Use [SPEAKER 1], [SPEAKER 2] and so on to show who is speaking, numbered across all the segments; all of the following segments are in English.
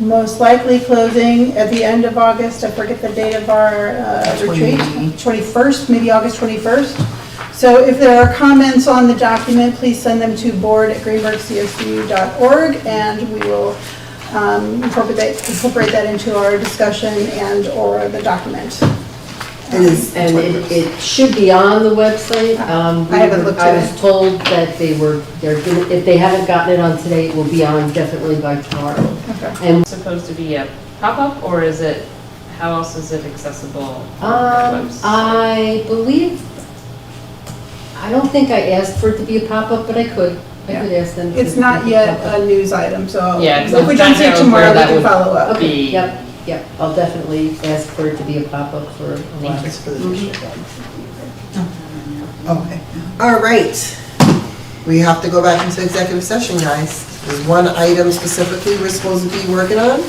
[SPEAKER 1] most likely closing at the end of August, I forget the date of our uh, retreat, 21st, maybe August 21st. So if there are comments on the document, please send them to board@greenbergcsu.org, and we will um, incorporate incorporate that into our discussion and/or the document.
[SPEAKER 2] And it's-
[SPEAKER 3] And it, it should be on the website. Um,
[SPEAKER 1] I haven't looked
[SPEAKER 3] I
[SPEAKER 1] at
[SPEAKER 3] was told that they were, they're, gonna- if they haven't gotten it on today, it will be on definitely by tomorrow. Um,
[SPEAKER 1] Okay.
[SPEAKER 3] And,
[SPEAKER 4] supposed to be a pop-up, or is it, how else is it accessible on
[SPEAKER 3] um,
[SPEAKER 4] the website?
[SPEAKER 3] I believe, I don't think I asked for it to be a pop-up, but I could. I could ask them. to
[SPEAKER 1] It's not
[SPEAKER 3] make it
[SPEAKER 1] yet a
[SPEAKER 3] pop-up.
[SPEAKER 1] news item, so
[SPEAKER 4] Yeah, 'cause
[SPEAKER 1] if we
[SPEAKER 4] I'm
[SPEAKER 1] don't
[SPEAKER 4] trying
[SPEAKER 1] see it
[SPEAKER 4] to
[SPEAKER 1] tomorrow, we can
[SPEAKER 4] remember that would-
[SPEAKER 1] follow up.
[SPEAKER 3] Okay,
[SPEAKER 4] be-
[SPEAKER 3] yep, yep. I'll definitely ask for it to be a pop-up for a while.
[SPEAKER 2] Just for the district. Mm-hmm. Okay, all right. We have to go back into executive session, guys. There's one item specifically we're supposed to be working on.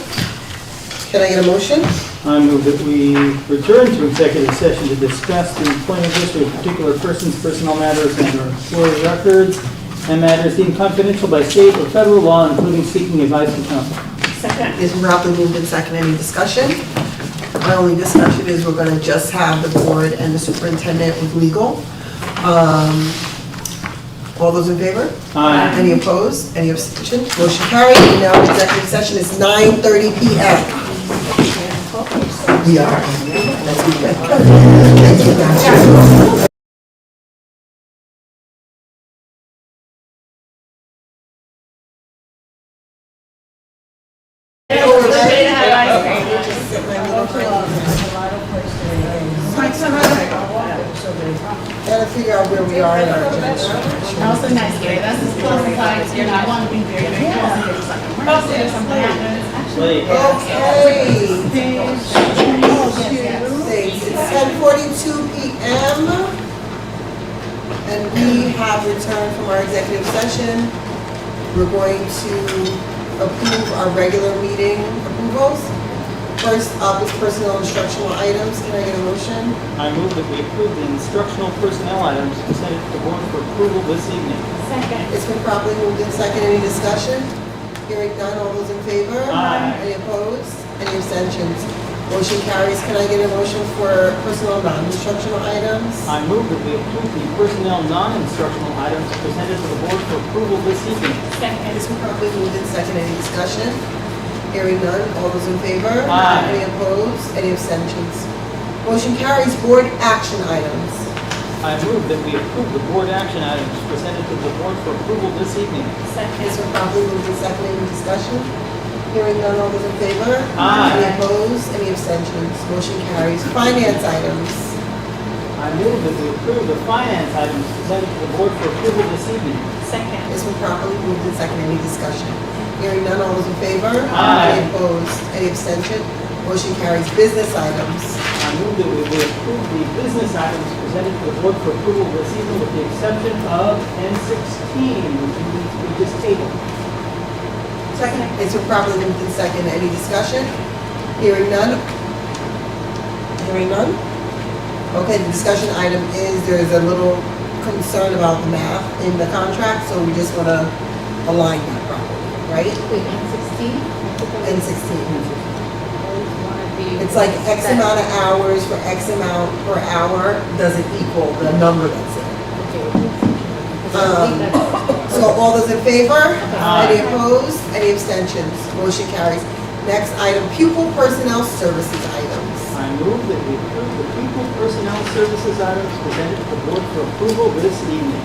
[SPEAKER 2] Can I get a motion?
[SPEAKER 5] I move that we return to executive session to discuss the employment history of particular persons, personnel matters, and their employee records, and matters deemed confidential by state or federal law, including seeking advice from counsel.
[SPEAKER 2] It's properly moved and second, any discussion? My only discussion is we're gonna just have the board and the superintendent with legal. Um, All those in favor?
[SPEAKER 5] Aye.
[SPEAKER 2] Any opposed? Any abstention? Motion carried. We now in executive session is 9:30 PM. We are. Thank you, guys. Gotta figure out where we are in our agenda.
[SPEAKER 6] Also nice, Gary, that's as close as I, you know, I want to be very, very close. in case something emergency or something happens.
[SPEAKER 5] Wait.
[SPEAKER 2] Okay. Thanks. It's ten forty-two PM. And we have returned from our executive session. We're going to approve our regular meeting approvals. First up is personal instructional items. Can I get a motion?
[SPEAKER 5] I move that we approve the instructional personnel items presented to the board for approval this evening.
[SPEAKER 2] It's been properly moved in second. Any discussion? Hearing none. All those in favor?
[SPEAKER 5] Aye.
[SPEAKER 2] Any opposed? Any abstentions? Motion carries. Can I get a motion for personal non-instructional items?
[SPEAKER 5] I move that we approve the personnel non-instructional items presented to the board for approval this evening.
[SPEAKER 2] It's been properly moved in second. Any discussion? Hearing none. All those in favor?
[SPEAKER 5] Aye.
[SPEAKER 2] Any opposed? Any abstentions? Motion carries. Board action items.
[SPEAKER 5] I move that we approve the board action items presented to the board for approval this evening.
[SPEAKER 2] It's been properly moved in second. Any discussion? Hearing none. All those in favor? Any
[SPEAKER 5] Aye.
[SPEAKER 2] opposed? Any abstentions? Motion carries. Finance items.
[SPEAKER 5] I move that we approve the finance items presented to the board for approval this evening.
[SPEAKER 2] It's been properly moved in second. Any discussion? Hearing none. All those in favor?
[SPEAKER 5] Aye.
[SPEAKER 2] Any opposed? Any abstention? Motion carries. Business items.
[SPEAKER 5] I move that we we approve the business items presented to the board for approval this evening with the exception of N sixteen, which we we just tabled.
[SPEAKER 2] Second. It's been properly moved in second. Any discussion? Hearing none? Hearing none? Okay, the discussion item is there's a little concern about the math in the contract, so we just want to align that properly, right?
[SPEAKER 3] Wait, at 16?
[SPEAKER 2] And 16. It's like X amount of hours for X amount per hour doesn't equal the number that's in. So all those in favor? Any opposed? Any abstentions? Motion carries. Next item, pupil personnel services items.
[SPEAKER 5] I move that we approve the people personnel services items presented to the board for approval this evening.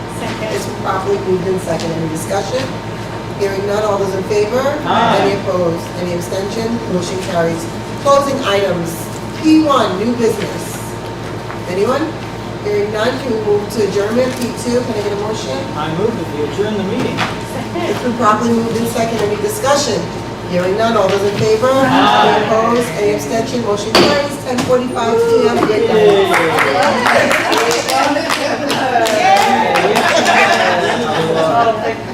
[SPEAKER 2] It's been properly moved in second. Any discussion? Hearing none, all those in favor?
[SPEAKER 5] Aye.
[SPEAKER 2] Any opposed? Any abstention? Motion carries. Closing items, P1, new business. Anyone? Hearing none, can we move to adjournment? P2, can I get a motion?
[SPEAKER 5] I move that we adjourn the meeting.
[SPEAKER 2] It's been properly moved in second. Any discussion? Hearing none, all those in favor? Any opposed? Any abstention? Motion carries. 10:45 PM. Good night.
[SPEAKER 5] Yay.